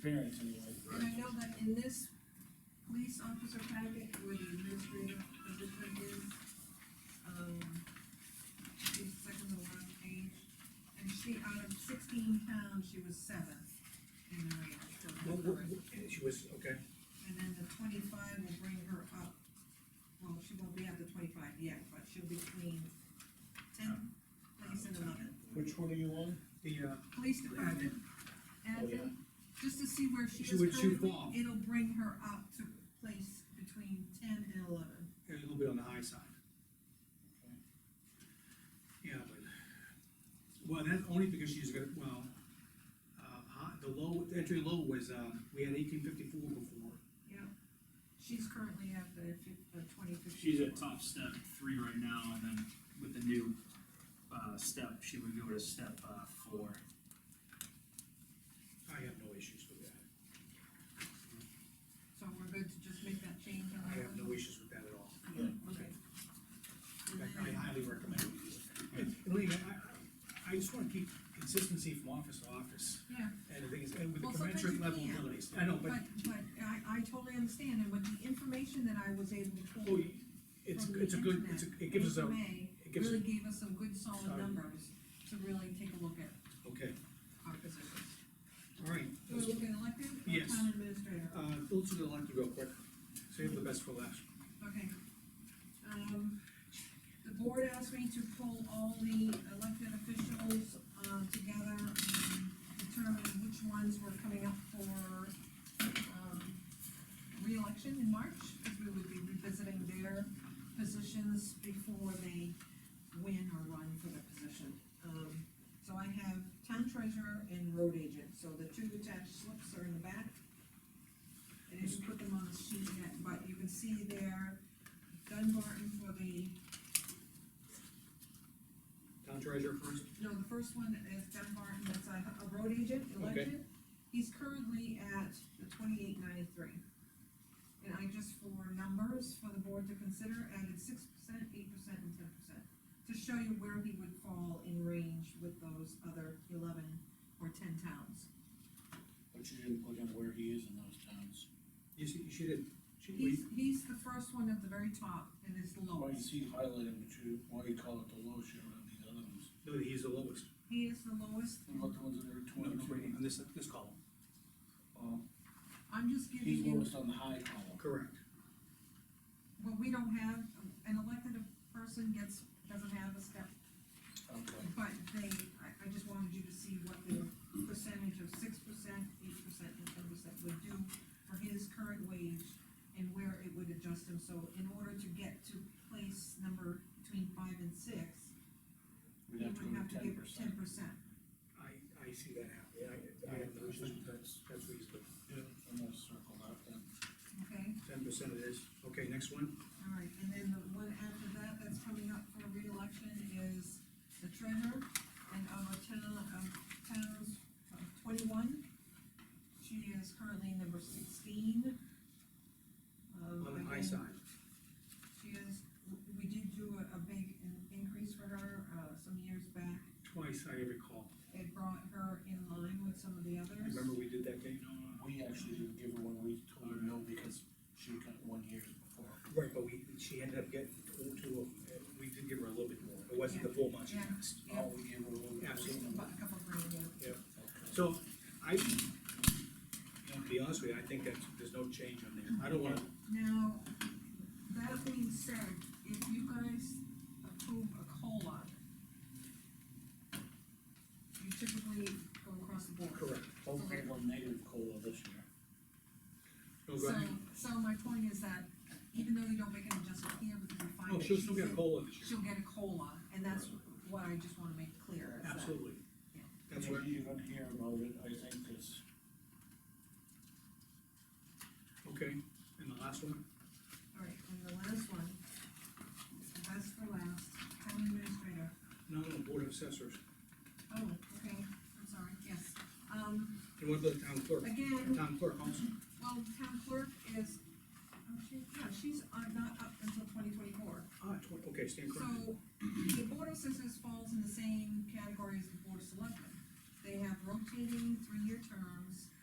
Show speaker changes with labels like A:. A: parents anyway.
B: And I know that in this police officer packet, where the administrative position is, um, she's second to last page, and she, out of sixteen pounds, she was seventh in the range for her current.
C: She was, okay,
B: And then the twenty-five will bring her up, well, she won't be at the twenty-five yet, but she'll be between ten, place and eleven.
A: Which one are you on?
C: the, uh,
B: Police department. And
A: yeah.
B: just to see where she
C: Oh, She
B: is
C: would shoot
B: currently,
C: off.
B: it'll bring her up to place between ten and eleven.
C: a little bit on the high side. Yeah, but, well, that's only because she's got, well, uh, hi- the low, the entry low was, um, we had eighteen fifty-four before.
B: Yeah. She's currently at the fif- uh, twenty fifty.
D: She's at top step three right now, and then with the new, uh, step, she would go to step, uh, four.
C: I have no issues with that.
B: So we're good to just make that change on
C: I
B: her?
C: have no issues with that at all.
B: Okay.
C: In
B: And
C: fact, I
B: then-
C: highly recommend it. And Lean, I, I, I just wanna keep consistency from office to office,
B: Yeah,
C: and the thing is, and with the
B: Well, sometimes
C: commensurate
B: you
C: level of
B: can't.
C: abilities. I know,
B: but,
C: but,
B: but I, I totally understand, and with the information that I was able to
C: oh,
B: pull
C: it's,
B: from the
C: it's a good,
B: internet
C: it's, a- it gives us
B: in
C: a,
B: May,
C: it gives-
B: Really gave us some good solid
C: Sorry.
B: numbers to really take a look at
C: okay,
B: our positions.
C: all right.
B: Do we look at elected or
C: Yes.
B: town administrator?
C: Uh, let's do the elected real quick, save the best for last.
B: Okay. Um, the board asked me to pull all the elected officials, uh, together and determine which ones were coming up for, um, reelection in March, because we would be revisiting their positions before they win or run for the position. Um, so I have town treasurer and road agent, so the two attached slips are in the back. I didn't put them on the sheet yet, but you can see there, Dunbarton for the,
C: Town treasurer first,
B: no, the first one is Dunbarton, that's a, a road agent elected. He's currently at the twenty-eight ninety-three. And I just for numbers for the board to consider, added six percent, eight percent, and ten percent, to show you where he would fall in range with those other eleven or ten towns.
A: But you didn't put in where he is in those towns.
C: you see, she did, she, we,
B: He's, he's the first one at the very top and is the
A: Why you
B: lowest.
A: see highlighted, but you, why you call it the low share of these other ones?
C: no, he's the lowest.
B: He is the lowest.
A: What about the ones that are
C: No, no, wait,
A: twenty-two?
C: on this, this column,
A: Oh,
B: I'm just giving you.
A: He's lowest on the high column.
C: correct.
B: Well, we don't have, an elected person gets, doesn't have a step,
A: Okay.
B: but they, I, I just wanted you to see what the percentage of six percent, eight percent, and ten percent would do for his current wage and where it would adjust him, so in order to get to place number between five and six,
A: We'd
B: he
A: have to
B: would
A: go
B: have
A: to
B: to
A: ten
B: give ten
A: percent.
B: percent.
C: I, I see that happening, I, I have no issues with that, that's reasonable.
A: Yeah, I'm gonna circle that then.
B: Okay,
C: Ten percent it is, okay, next one,
B: all right, and then the one after that, that's coming up for reelection is the treasurer and of a town, of towns of twenty-one. She is currently number sixteen. Um,
C: on the high
B: again,
C: side.
B: She is, we did do a, a big in- increase for her, uh, some years back.
C: Twice I recall,
B: It brought her in line with some of the others.
C: remember we did that, Dave?
A: We actually didn't give her one, we told her no because she got one year before.
C: Right, but we, she ended up getting two, two, of- uh, we did give her a little bit more, it wasn't the full much.
B: Yeah.
A: Oh, we gave her a little. bit.
C: Absolutely.
B: About a couple grand, yeah.
A: Okay.
C: So, I, you know, to be honest with you, I think that there's no change on there, I don't wanna,
B: Now, that being said, if you guys approve a COLA, you typically go across the board.
C: correct,
A: Hopefully we'll negative COLA this year.
C: no, Oh, go
B: So,
C: ahead.
B: so my point is that even though you don't make an adjustment here because you find
C: Oh,
B: that
C: she'll still
B: she's
C: get a
B: in-
C: COLA this year,
B: She'll get a COLA, and that's what I just wanna make clear. is that-
C: absolutely.
B: Yeah.
C: That's what,
A: You're gonna hear about it, I think, is
C: okay, and the last one,
B: All right, and the last one, last for last, town administrator.
C: no, no, board of assessors,
B: Oh, okay, I'm sorry, yes. Um,
C: and what about the town clerk?
B: again,
C: Town clerk also,
B: Well, the town clerk is, oh, she, yeah, she's uh, not up until twenty twenty-four.
C: ah, twen- okay, stand corrected,
B: So, the board of assessors falls in the same category as the board of selectmen. They have rotating three-year terms,